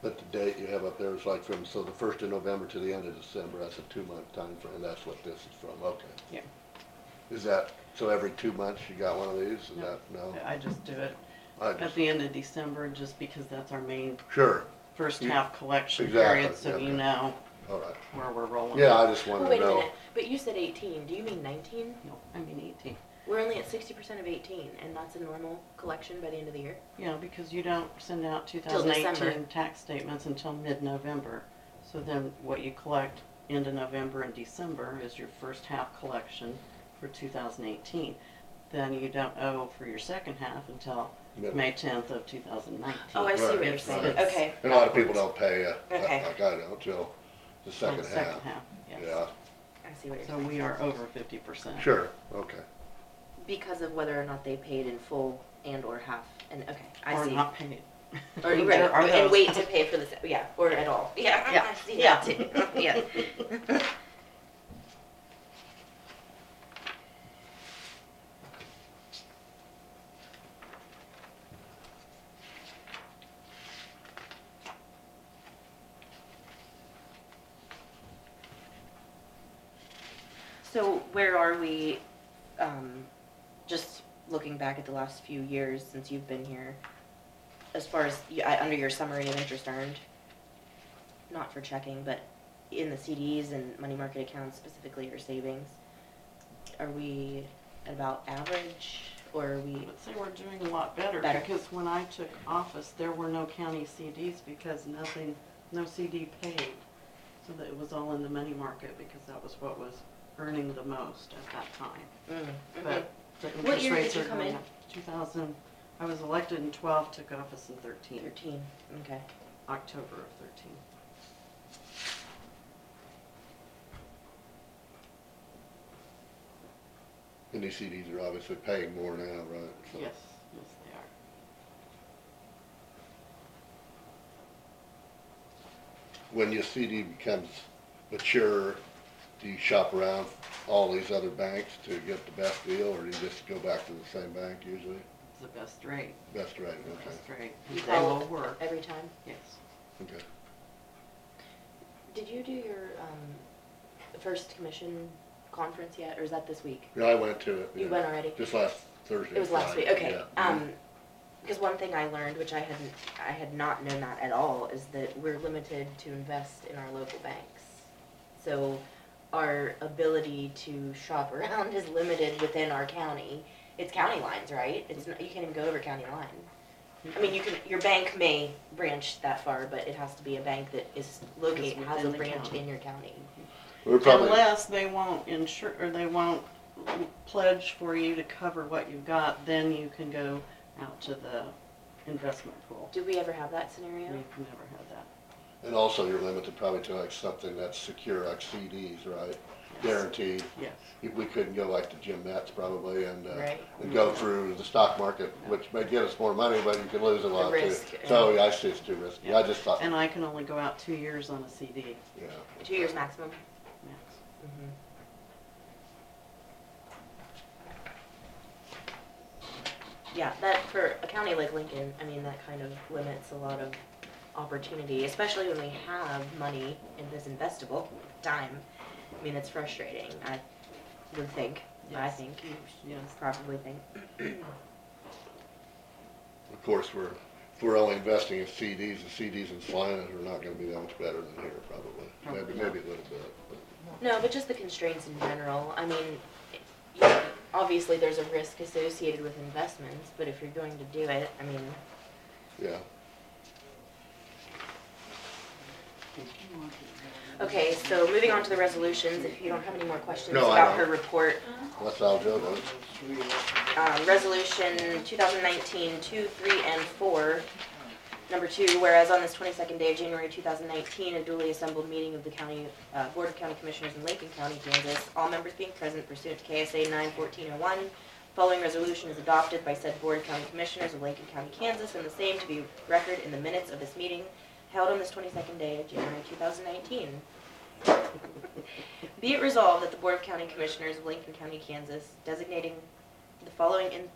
But the date you have up there is like from, so the first of November to the end of December, that's a two-month time frame. that's what this is from, okay. Yeah. Is that, so every two months you got one of these, is that, no? I just do it I at just, the end of December, just because that's our main sure, first You- half collection Exactly, period, so you okay. know all right. where we're rolling. Yeah, I just wanted Wait to a know. minute, but you said eighteen, do you mean nineteen? No, I mean eighteen. We're only at sixty percent of eighteen, and that's a normal collection by the end of the year? Yeah, because you don't send out two Till thousand December. eighteen tax statements until mid-November. So then what you collect end of November and December is your first half collection for two thousand eighteen. Then you don't owe for your second half until Mid- May tenth of two thousand nineteen. Oh, I see what Right, you're saying, right. okay. And a lot of people don't pay, uh, Okay. Oh, like I don't, till the second half. Second half, yes. Yeah, I see what you're So saying, we are over fifty percent. sure, okay. because of whether or not they paid in full and or half, and, okay, I Or see. not paid. Or, There right, are and those. wait to pay for this, yeah, or at all, yeah, Yeah, I see yeah. that too, yeah. So where are we, um, just looking back at the last few years since you've been here, as far as, y- I- under your summary of interest earned, not for checking, but in the CDs and money market accounts specifically or savings, are we at about average or are we, I'd say we're doing a lot better, Better. because when I took office, there were no county CDs because nothing, no CD paid. So that it was all in the money market because that was what was earning the most at that time. Mm, mhm. But the interest What year did rates you are come going in? up. Two thousand, I was elected in twelve, took office in thirteen, thirteen, okay. October of thirteen. And these CDs are obviously paying more now, right? So- Yes, yes, they are. when your CD becomes mature, do you shop around all these other banks to get the best deal, or do you just go back to the same bank usually? It's the best rate, Best rate, the okay, best rate. You They call will work, every time? yes. okay. Did you do your, um, first commission conference yet, or is that this week? Yeah, I went to it. You yeah. went already? Just last Thursday. It was last week, Friday, okay. yeah. Um, because one thing I learned, which I hadn't, I had not known that at all, is that we're limited to invest in our local banks. So our ability to shop around is limited within our county. It's county lines, right? It's, not- you can't even go over county line. I mean, you can, your bank may branch that far, but it has to be a bank that is located, has within a the branch county. in your county. We were probably, Unless they won't insure, or they won't pledge for you to cover what you've got, then you can go out to the investment pool. Did we ever have that We've scenario? never had that. and also you're limited probably to like something that's secure, like CDs, right? Yes. Guaranteed. Yes, If We couldn't go like to Jim Metz probably and, uh, Right. and go through the stock market, which may get us more money, but you could lose a lot too. risk, yeah. So, yeah, I see it's too risky. I just thought, and I can only go out two years on a CD yeah. Two years maximum? max. Mhm. Yeah, that, for a county like Lincoln, I mean, that kind of limits a lot of opportunity, especially when we have money in this investable time. I mean, it's frustrating, I would think, I Yes. think, Yes, probably think. Of course, we're, if we're only investing in CDs, the CDs in Salinas are not gonna be that much better than here, probably. Maybe, Probably maybe a little bit, but No, but just the constraints in general, I mean, it- you know, obviously, there's a risk associated with investments, but if you're going to do it, I mean, yeah. Okay, so moving on to the resolutions, if you don't have any more questions No, I about her don't. report. That's Al Joe does. Um, resolution 2019-2, 3, and 4. Number two, whereas on this 22nd day of January 2019, a duly assembled meeting of the county, uh, Board of County Commissioners in Lincoln County, Kansas, all members being present pursuant to KSA 91401, following resolution is adopted by said Board of County Commissioners of Lincoln County, Kansas, and the same to be record in the minutes of this meeting held on this 22nd day of January 2019. Be it resolved that the Board of County Commissioners of Lincoln County, Kansas, designating the following in-